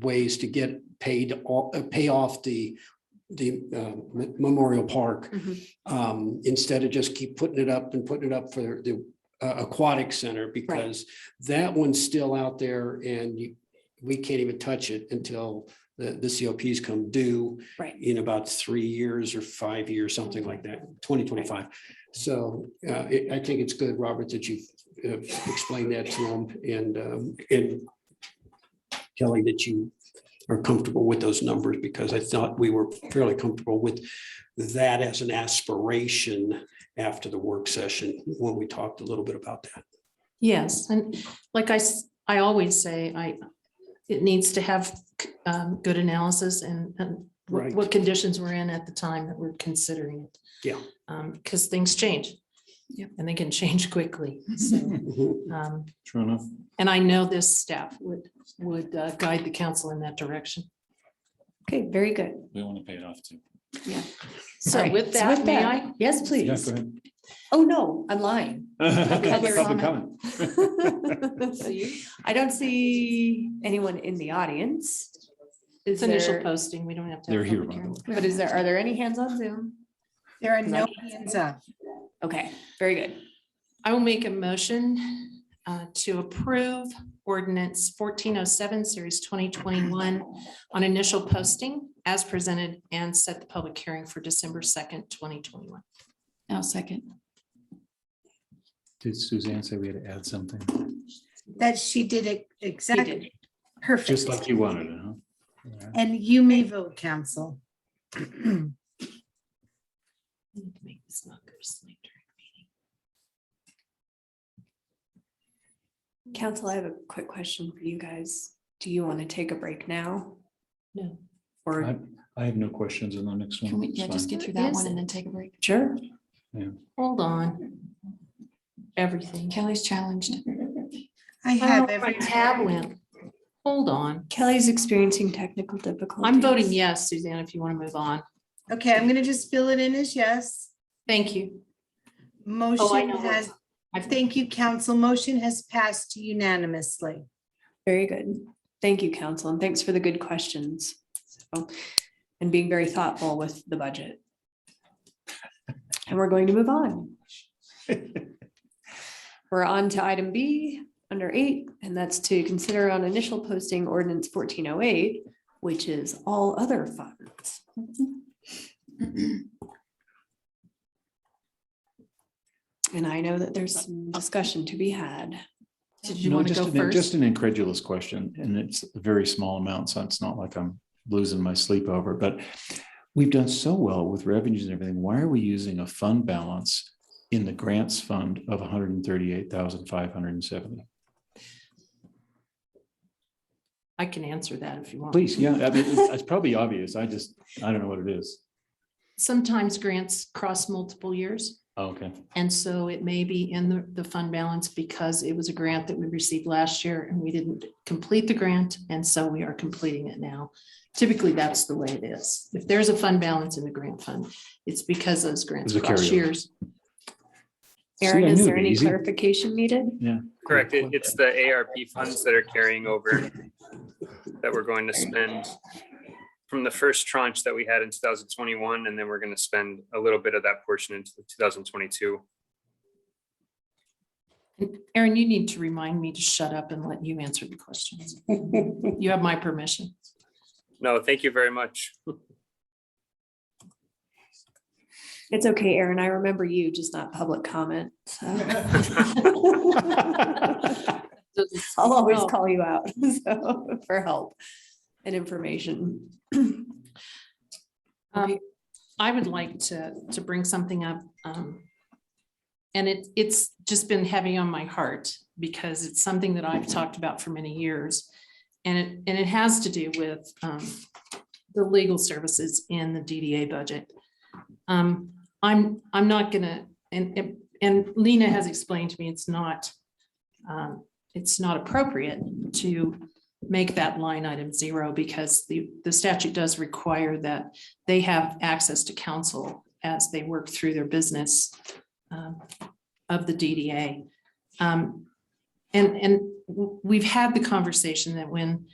ways to get paid, off- uh, pay off the, the uh, me- Memorial Park. Mhm. Um, instead of just keep putting it up and putting it up for the uh, aquatic center because that one's still out there and you, we can't even touch it until the, the COPs come due Right. in about three years or five years, something like that, twenty twenty-five. So uh, it- I think it's good, Robert, that you've uh, explained that to them and, um, and Kelly, that you are comfortable with those numbers because I thought we were fairly comfortable with that as an aspiration after the work session when we talked a little bit about that. Yes, and like I, s- I always say, I, it needs to have um, good analysis and, and what- Right. what conditions we're in at the time that we're considering it. Yeah. Because things change. Yep. And they can change quickly, so. Mhm. um, True enough. And I know this staff would, would uh, guide the council in that direction. Okay, very good. We want to pay it off too. So Alright, with that, may that- I? Yes, Yeah, please. Oh, no, I'm lying. go ahead. Public Public comment. comment. See? I don't see anyone in the audience. Is It's initial there, posting, we don't have to. have They're here, public by the hearing. way. but is there, are there any hands on Zoom? There are no no hands up. Okay, very good. I will make a motion uh, to approve ordinance fourteen oh seven, series twenty twenty-one on initial posting as presented and set the public hearing for December second, twenty twenty-one. Now second. Did Suzanne say we had to add something? That she did it exactly. Just like Perfect. you wanted it, huh? All right. And you may vote, council. Make this not go to sleep during Council, I have a quick question for you guys. Do you want to take a break now? the meeting. Or, I I have no questions on the next one. Can we, It's yeah, just fine. get through What that is one and it? then take a break? sure. No, hold on. Everything. Kelly's challenged. I Oh, have My every. tab went. Hold on. Kelly's experiencing technical difficulties. I'm voting yes, Suzanne, if you want to move on. Okay, I'm gonna just fill it in as yes. Thank you. Motion Oh, know. has, I thank you, council. Motion has passed unanimously. Very good. Thank you, council, and thanks for the good questions. So, And being very thoughtful with the budget. And we're going to move on. We're on to item B, under eight, and that's to consider on initial posting ordinance fourteen oh eight, which is all other funds. And I know that there's some discussion to be had. Did you No, want to just go an- Just first? an incredulous question, and it's a very small amount, so it's not like I'm losing my sleep over it, but we've done so well with revenues and everything. Why are we using a fund balance in the grants fund of hundred and thirty-eight thousand five hundred and seventy? I can answer that if you want. Please, yeah, I mean, it's it's probably obvious. I just, I don't know what it is. Sometimes grants cross multiple years. Oh, Okay, And so it may be in the, the fund balance because it was a grant that we received last year and we didn't complete the grant. And so we are completing it now. Typically, that's the way it is. If there's a fund balance in the grant fund, it's because those grants It's a cross carryover. years. I Aaron, knew is it'd there be any easy. clarification needed? Correct. It- It's the ARP funds that are carrying over that we're going to spend from the first tranche that we had in two thousand twenty-one, and then we're going to spend a little bit of that portion into two thousand twenty-two. Erin, you need to remind me to shut up and let you answer the questions. You have my permission. No, thank you very much. It's okay, Erin. I remember you, just not public comment. So I'll always call you out so, for help and information. Um, I would like to, to bring something up. um, And it, it's just been heavy on my heart because it's something that I've talked about for many years. And it, and it has to do with um, the legal services in the DDA budget. Um, I'm, I'm not gonna, and, and- and Lena has explained to me, it's not, um, it's not appropriate to make that line item zero because the, the statute does require that they have access to counsel as they work through their business um, of the DDA. Um, And, and w- we've had the conversation that when